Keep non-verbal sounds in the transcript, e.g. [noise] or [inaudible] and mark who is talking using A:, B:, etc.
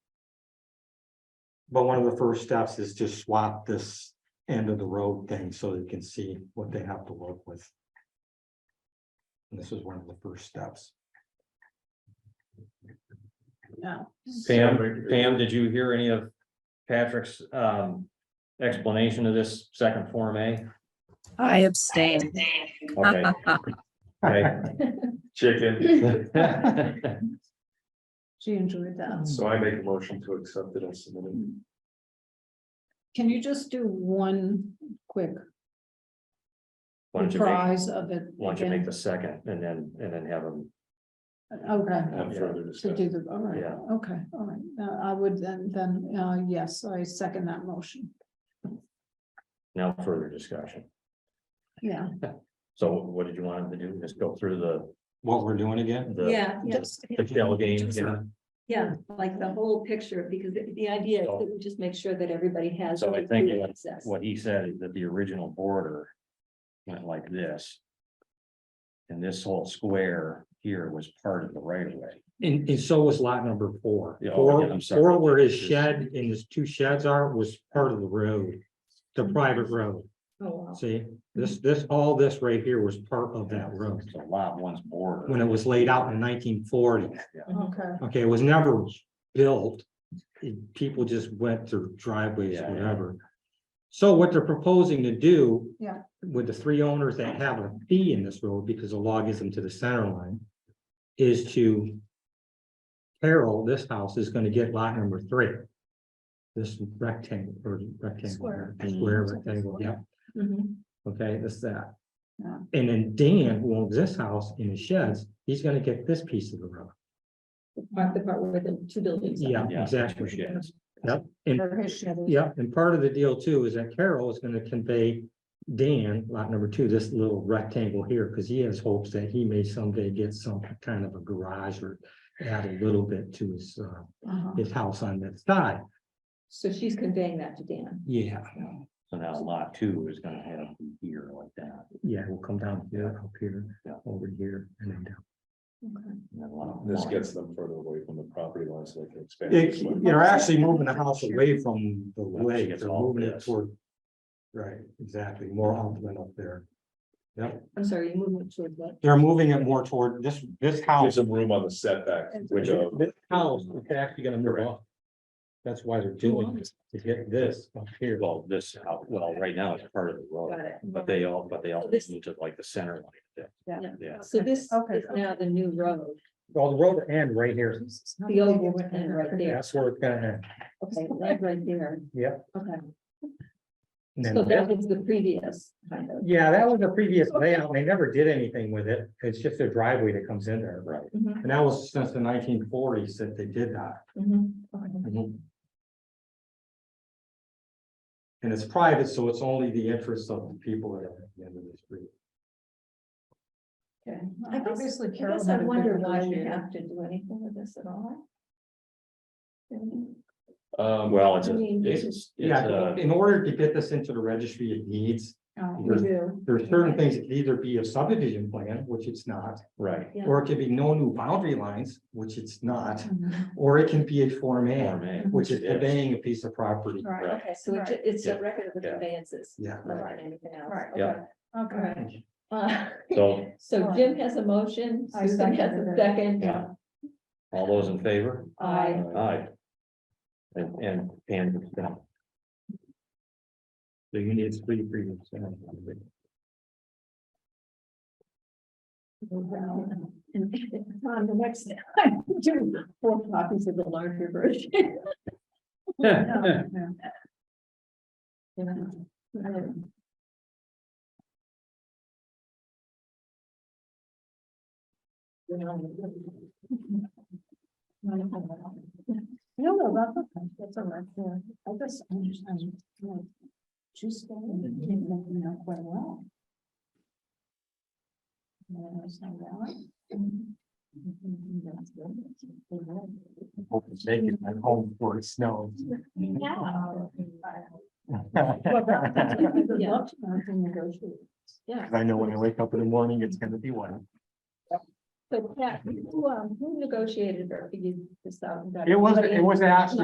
A: But one of the first steps is to swap this end of the road thing so they can see what they have to work with. And this is one of the first steps.
B: No.
C: Pam, Pam, did you hear any of Patrick's um explanation of this second Form A?
D: I abstain.
C: Okay,
A: [laughs]
C: okay.
E: Chicken,
B: [laughs] She enjoyed
C: Hmm.
B: that.
E: so I make a motion to accept it as submitted.
B: Can you just do one quick
C: Why don't you make,
B: prize of it?
C: why don't you make
B: again?
C: the second and then, and then have them,
B: Okay,
E: Have
B: to
E: further
B: do
E: discussion.
B: the, all right,
C: Yeah.
B: okay, all right. Uh, I would then, then, uh, yes, I second that motion.
C: now further discussion.
B: Yeah,
C: So what did you want them to do? Just go through the,
A: What we're doing again?
C: the.
F: just-
C: The shell game, you know?
F: Yeah, like the whole picture, because the, the idea is that we just make sure that everybody has.
C: So I think
F: complete access.
C: what he said is that the original border went like this. And this whole square here was part of the right of way.
A: And, and so was lot number four.
C: Yeah, oh, yeah,
A: Four,
C: I'm sorry.
A: four where his shed and his two sheds are was part of the road, the private road.
B: Oh,
A: See, this, this, all this right here was part of that road
C: So lot one's border.
A: when it was laid out in nineteen forty.
B: okay.
A: Okay, it was never built. It- People just went through driveways,
C: Yeah, yeah.
A: whatever. So what they're proposing to do.
B: Yeah.
A: With the three owners that have a fee in this road, because the law gives them to the center line, is to. Carol, this house is gonna get lot number three. This rectangle or rectangle,
B: Square.
A: square rectangle, yeah.
B: Mm-hmm.
F: Mhm.
A: Okay, that's that.
B: Yeah.
A: And then Dan, who owns this house in the sheds, he's gonna get this piece of the road.
F: Part the part where the two buildings. are.
A: Yeah,
C: Yeah,
A: exactly.
C: which is-
A: Yep, and,
B: Or his shed is-
A: yeah, and part of the deal too is that Carol is gonna convey Dan, lot number two, this little rectangle here, because he has hopes that he may someday get some kind of a garage or add a little bit to his, uh,
B: Uh-huh.
A: his house on that side.
F: So she's conveying that to Dan.
A: Yeah,
C: So now lot two is gonna have here like that.
A: yeah, we'll come down here, up here,
C: Yeah.
A: over here, and then down.
C: and then lot
E: This
C: one.
E: gets them further away from the property line so they can expand.
A: It,
E: this way.
A: you're actually moving the house away from the
C: Once you
A: lake,
C: get
A: they're
C: all
A: moving it
C: this.
A: toward. Right, exactly, more outland up there.
F: I'm sorry, you moved it towards what?
A: They're moving it more toward this, this
E: Give
A: house.
E: some room on the setback, which, uh,
A: This house is actually gonna move off. That's why they're doing this, to get this up here.
C: Well, this, out- well, right now it's part of the
F: Got
C: road,
F: it.
C: but they all, but they all
F: So this-
C: need to like the center line. yeah.
F: Yeah.
C: Yeah,
F: So this
B: Okay,
F: is now the new road,
A: Well, the road end right here.
F: the old woman and
B: [laughs]
F: right there,
A: That's where it's gonna end.
F: okay, that right there.
A: Yep.
F: Okay,
A: And
F: so
A: then
F: that
A: this-
F: was the previous kind of.
A: Yeah, that was the previous layout. and They never did anything with it. It's just a driveway that comes in there. Right.
F: Mhm,
A: And that was since the nineteen forties that they did that.
B: Mm-hmm.
A: Mm-hmm.
F: mhm, okay.
A: And it's private, so it's only the interests of the people that are at the end of the street.
F: Okay. I guess-
B: Obviously
F: I
B: Carol
F: guess I
B: had a
F: wonder
B: good
F: why we
B: negotiator.
F: have to do anything with this at all. Um,
E: um, uh,
C: well, it's,
F: I
C: a-
F: mean,
C: it's, it's uh,
A: Yeah,
C: a,
A: in order to get this into the registry of deeds,
B: Oh,
F: We do.
A: there are certain things that could either be a subdivision plan, which it's not.
C: right,
F: Yeah.
A: Or it could be no new boundary lines, which it's not,
B: [laughs] mhm.
A: or it can be a Form
C: Form
A: A,
C: A.
A: which is
C: It is.
A: conveying a piece of property.
B: Right,
C: Right.
F: Okay, so it ju-
B: Right.
F: it's
C: Yeah.
F: a record of the
C: Yeah.
F: conveyances.
A: Yeah.
F: More than anything else.
B: Right.
C: Yeah.
B: okay.
F: Okay. All right. Uh, [laughs]
C: So-
F: So Jim has a motion,
B: I
F: Susan has
B: seconded
F: a
B: it.
F: second.
C: Yeah. all those in favor?
F: I,
C: Aye. And, and, and. So you need three previous.
B: Um,
F: and on the next, I'm doing four copies of the larger [laughs] version.
B: Yeah, yeah.
F: Um,
B: No, no, that's okay, that's all right, yeah, I just understand. like, Just go and it didn't make me out quite well. And I was like, well,
A: Make it my home for it snows.
B: well, that- that's what I would
F: Yeah.
B: love to know to negotiate.
F: Yeah.
A: I know when I wake up in the morning, it's gonna be one.
F: So Pat, who, um, who negotiated or figured this out?
A: It was, it was actually